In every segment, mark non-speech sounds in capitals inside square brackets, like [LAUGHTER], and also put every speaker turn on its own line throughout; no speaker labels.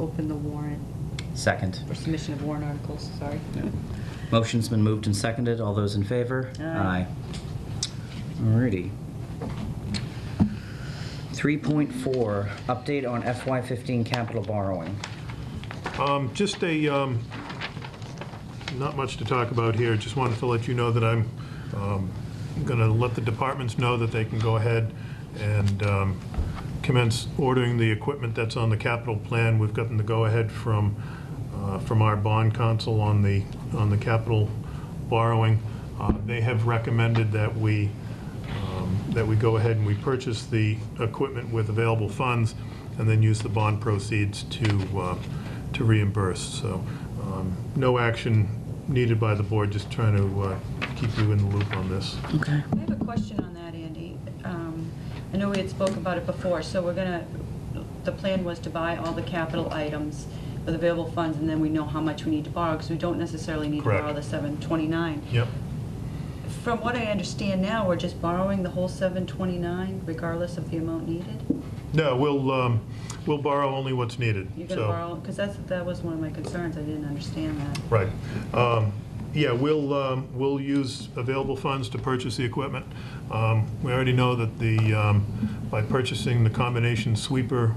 open the warrant,
Second.
or submission of warrant articles, sorry.
Motion's been moved and seconded. All those in favor?
Aye.
Alrighty. 3.4, update on FY15 capital borrowing.
Um, Just a, um, not much to talk about here, just wanted to let you know that I'm going to let the departments know that they can go ahead and um, commence ordering the equipment that's on the capital plan. We've gotten the go-ahead from, uh, from our bond council on the, on the capital borrowing. Uh, They have recommended that we that we go ahead and we purchase the equipment with available funds and then use the bond proceeds to, uh, to reimburse. So um, no action needed by the board, just trying to uh, keep you in the loop on this.
Okay.
I have a question on that, Andy. Um, I know we had spoken about it before, so we're gonna, the plan was to buy all the capital items with available funds, and then we know how much we need to borrow, because we don't necessarily need to
Correct.
borrow the 729.
Yep.
From what I understand now, we're just borrowing the whole 729 regardless of the amount needed?
No, we'll, um, we'll borrow only what's needed.
You're gonna
So-
borrow, because that's, that was one of my concerns, I didn't understand that.
Right. Um, Yeah, we'll, um, we'll use available funds to purchase the equipment. Um, We already know that the, um, by purchasing the combination sweeper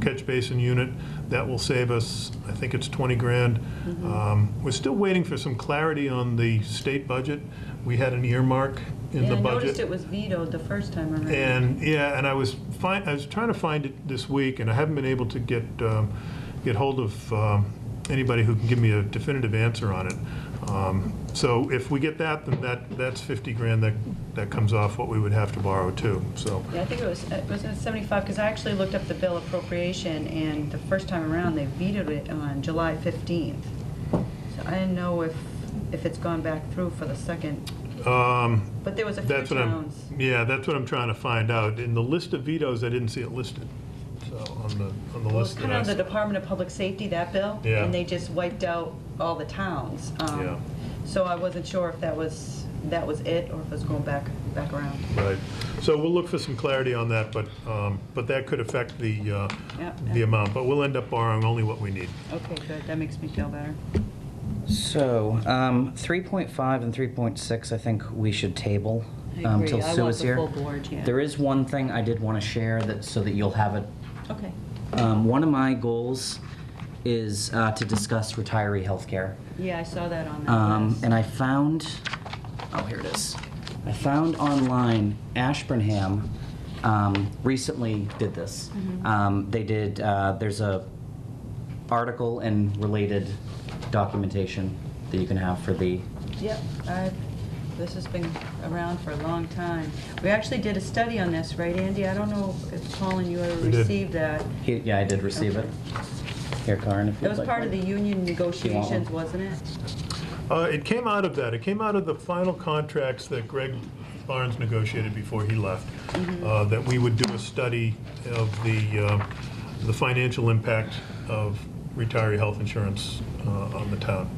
catch basin unit, that will save us, I think it's 20 grand.
Mm-hmm.
Um, We're still waiting for some clarity on the state budget. We had an earmark in
And
the
I
budget.
noticed it was vetoed the first time around.
And, yeah, and I was find, I was trying to find it this week, and I haven't been able to get, um, get hold of, um, anybody who can give me a definitive answer on it. Um, So if we get that, then that, that's 50 grand that, that comes off what we would have to borrow too, so.
Yeah, I think it was, it was in 75, because I actually looked up the bill appropriation, and the first time around, they vetoed it on July 15th. So I didn't know if, if it's gone back through for the second,
um,
but there was a few
That's what I'm,
towns.
yeah, that's what I'm trying to find out. In the list of vetoes, I didn't see it listed, so, on the, on the
Well, it's
list
kind
that I
of the
saw.
Department of Public Safety, that bill.
Yeah.
And they just wiped out all the towns. um,
Yeah.
So I wasn't sure if that was, that was it, or if it was going back, back around.
Right. So we'll look for some clarity on that, but, um, but that could affect the, uh,
Yep,
the
yep.
amount. But we'll end up borrowing only what we need.
Okay, good, that makes me feel better.
So, um, 3.5 and 3.6, I think we should table
I
um,
agree.
till
I
Sue
want
is
the
here.
full board, yeah.
There is one thing I did want to share that, so that you'll have it
Okay.
Um, one of my goals is uh, to discuss retiree healthcare.
Yeah, I saw that on that
Um,
list.
and I found, oh, here it is. I found online Ashburnham um, recently did this.
Mm-hmm.
Um, they did, uh, there's a article and related documentation that you can have for the,
Yep, I've, this has been around for a long time. We actually did a study on this, right, Andy? I don't know if Colin, you ever
We did.
received that.
he- yeah, I did receive it. Here, Karen, if you'd
That was
like
part of the
one.
union negotiations, wasn't it?
Uh, It came out of that. It came out of the final contracts that Greg Barnes negotiated before he left, uh, that we would do a study of the, uh, the financial impact of retiree health insurance uh, on the town.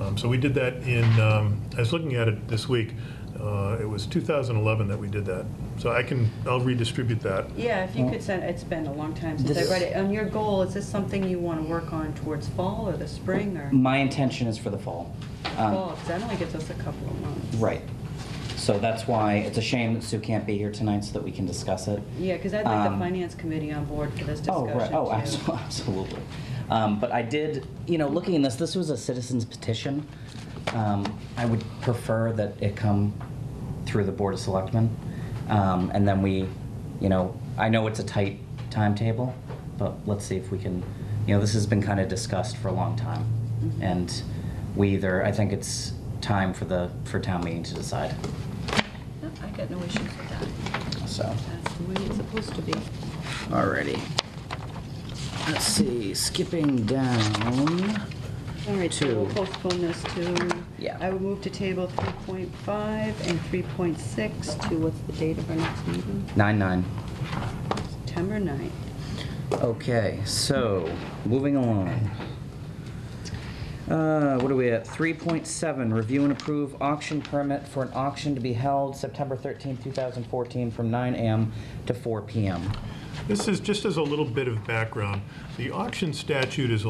Um, So we did that in, um, I was looking at it this week, Uh, it was 2011 that we did that. So I can, I'll redistribute that.
Yeah, if you could send, it's been a long time since
This-
I read it. And your goal, is this something you want to work on towards fall or the spring or
My intention is for the fall. Um,
fall? Because that only gives us a couple of months.
Right. So that's why it's a shame that Sue can't be here tonight so that we can discuss it.
Yeah, because I'd like the
Um,
finance committee on board for this
Oh,
discussion,
right, oh, [LAUGHS]
too.
abso- absolutely. Um, But I did, you know, looking at this, this was a citizen's petition. Um, I would prefer that it come through the Board of Selectmen. Um, And then we, you know, I know it's a tight timetable, but let's see if we can, you know, this has been kind of discussed for a long time. And we either, I think it's time for the, for town meeting to decide,
No, I got no issues with that.
so.
That's the way it's supposed to be.
Alrighty. Let's see, skipping down.
All right, so we'll
Two.
postpone this to.
Yeah.
I would move to table 3.5 and 3.6 to, what's the date of our next meeting?
Nine nine.
September 9th.
Okay, so, moving along. Uh, what are we at? Three point seven, review and approve auction permit for an auction to be held September thirteenth, two thousand fourteen, from nine AM to four PM.
This is, just as a little bit of background, the auction statute is a